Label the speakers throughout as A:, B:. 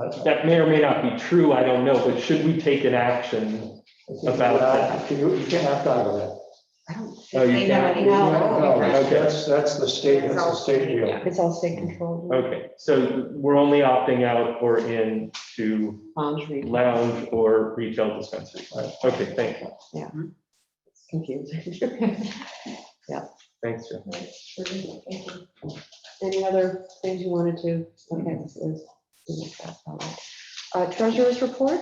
A: uh,
B: That may or may not be true, I don't know, but should we take an action? About that.
A: uh, You, you can't opt out of that.
C: I don't
B: Oh,
C: think
B: you
C: they
B: can't.
C: have any.
D: No.
A: No,
B: okay.
A: that's, that's the state, that's the state deal.
D: It's all state controlled.
B: Okay, so we're only opting out or in to
D: Laundry,
B: lounge or retail dispensary. Okay, thank you,
D: it's confusing.
B: thanks, Jeff.
D: Any other things you wanted to, okay, this is- this is that, all right. Uh, treasurer's report?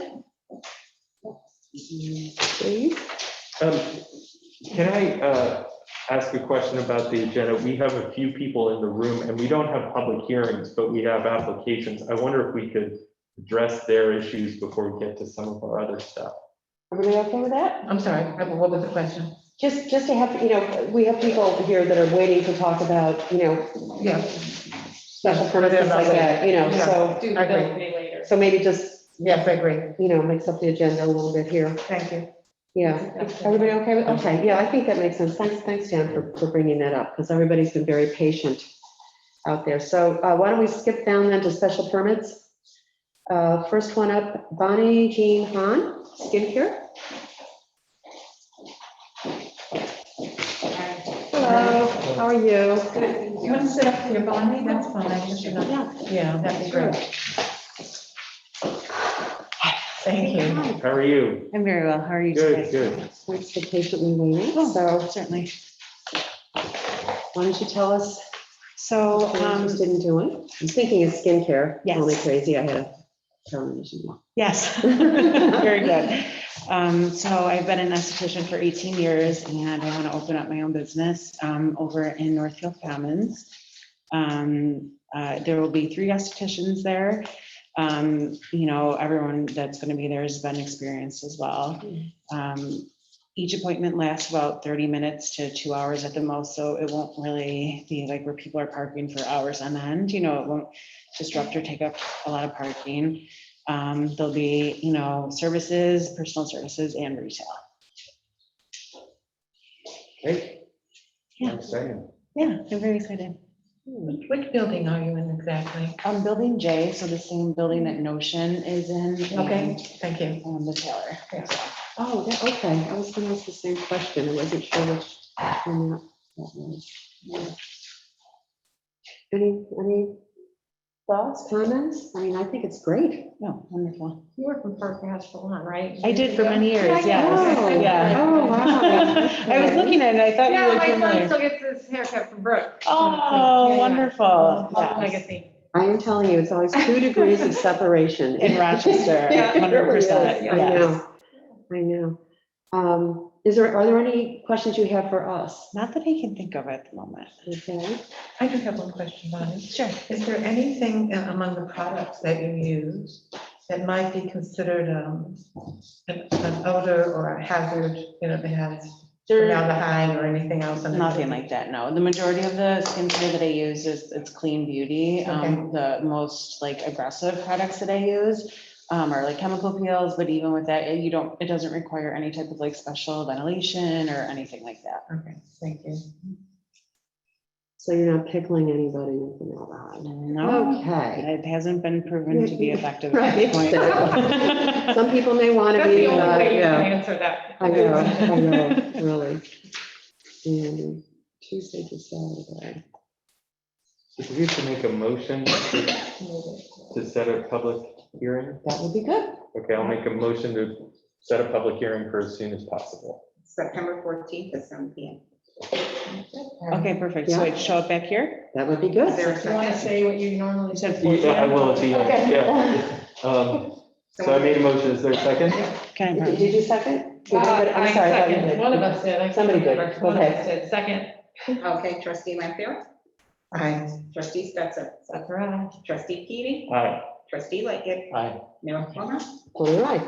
D: Please,
B: Um, Can I uh, ask a question about the agenda? We have a few people in the room and we don't have public hearings, but we have applications. I wonder if we could address their issues before we get to some of our other stuff.
D: everybody okay with that?
C: I'm sorry, I- what was the question?
D: Just, just to have, you know, we have people here that are waiting to talk about, you know,
C: Yeah.
D: special permits like that, you know, so,
E: Do
C: I
E: the
C: agree.
E: bill pay later.
D: so maybe just,
C: Yes, I agree.
D: you know, mix up the agenda a little bit here.
C: Thank you.
D: Yeah, everybody okay with, okay, yeah, I think that makes sense. Thanks, thanks, Dan, for, for bringing that up, because everybody's been very patient out there. So uh, why don't we skip down then to special permits? Uh, First one up, Bonnie Jean Han, skincare. Hello, how are you?
C: You want to sit up here, Bonnie? That's fine.
D: Yeah,
C: Yeah, that'd be
D: sure.
C: great. Thank you.
D: Hi,
B: How are you?
F: I'm very well. How are you
B: Good,
F: today?
B: good.
D: Thanks for patiently waiting. So
F: Certainly.
D: why don't you tell us
F: So,
D: what you're
F: um,
D: interested in doing? I'm thinking of skincare.
F: Yes.
D: Only crazy, I had a termination.
F: yes, very good. Um, so I've been an esthetician for 18 years and I want to open up my own business, um, over in Northfield Commons. Um, uh, there will be three estheticians there. Um, you know, everyone that's going to be there has been experienced as well. Um, each appointment lasts about 30 minutes to two hours at the most, so it won't really be like where people are parking for hours on end. You know, it won't disrupt or take up a lot of parking. Um, there'll be, you know, services, personal services and retail.
B: Great.
F: Yeah.
B: Exciting.
F: Yeah, I'm very excited.
C: Which building are you in exactly?
F: Um, building J, so the same building that Notion is in.
C: Okay, thank you.
F: and, Um, the Taylor.
C: Yeah.
D: Oh, that- okay, I was gonna ask the same question, I wasn't sure which. one that that was. Yeah. Any, any thoughts, comments? I mean, I think it's great.
F: No, wonderful.
E: You work with Park National Salon, right?
F: I did for many years, yes.
D: Oh,
F: yeah.
D: Oh, wow.
F: I was looking at it, I thought you
E: Yeah,
F: looked
E: my son
F: familiar.
E: still gets his haircut from Brooke.
F: Oh,
E: Oh,
F: wonderful. Yes.
E: Legacy.
D: I am telling you, it's always two degrees of separation.
F: In Rochester,
D: It really
F: 100%,
D: is. I know, I know. Um, Is there, are there any questions you have for us?
F: Not that I can think of at the moment.
D: Okay.
C: I do have one question, Bonnie.
F: Sure.
C: Is there anything uh, among the products that you use that might be considered um, an an odor or a hazard, you know, that has formaldehyde or anything else? in it?
F: Nothing like that, no. The majority of the skincare that I use is, it's clean beauty. Um, the most like aggressive products that I use um, are like chemical peels, but even with that, you don't, it doesn't require any type of like special ventilation or anything like that.
C: Okay, thank you.
D: So you're not pickling anybody with formaldehyde?
F: No,
D: Okay.
F: it hasn't been proven to be effective at
D: Right.
F: this point.
D: Some people may want to
E: That's
D: be,
E: the
D: uh,
E: only way you can
D: yeah,
E: answer that.
D: I know, I know, really. And Tuesday to Saturday.
B: Do we have to make a motion to to set a public hearing?
D: That would be good.
B: Okay, I'll make a motion to set a public hearing for as soon as possible.
G: September fourteenth at seven P M.
F: Okay, perfect. So I'd show up back here?
D: That would be good.
E: If you want to say what you normally
F: You
E: said.
F: said
B: Yeah, I
F: 14?
B: will at the end, yeah. Um, So I made a motion, is there a second?
F: Can I?
D: Did did you second? Did anybody- I'm
E: Uh, I
D: sorry. I thought you
E: seconded.
D: did.
E: One of us did. I can't
D: Somebody did,
E: remember. One of
D: okay.
E: us did. Second.
G: Okay, trustee Lampier,
C: Aye.
G: trustee Stetser,
E: That's right.
G: trustee Keating,
B: Aye.
G: trustee Lightgev,
B: Aye.
G: Mayor Plummer.
D: All right.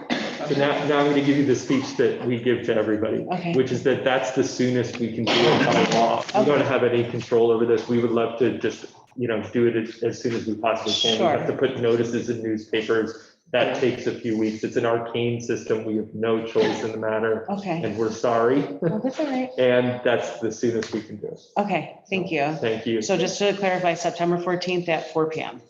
B: So now, now I'm going to give you the speech that we give to everybody,
F: Okay.
B: which is that that's the soonest we can do it by law. We don't have any control over this. We would love to just, you know, do it as, as soon as we possibly can. We have to put notices in newspapers. That takes a few weeks. It's an arcane system. We have no choice in the matter,
F: Okay.
B: and we're sorry.
F: Well, That's all right.
B: And that's the soonest we can do it.
F: Okay, thank you.
B: Thank you.
F: So just to clarify, September 14th at 4 PM.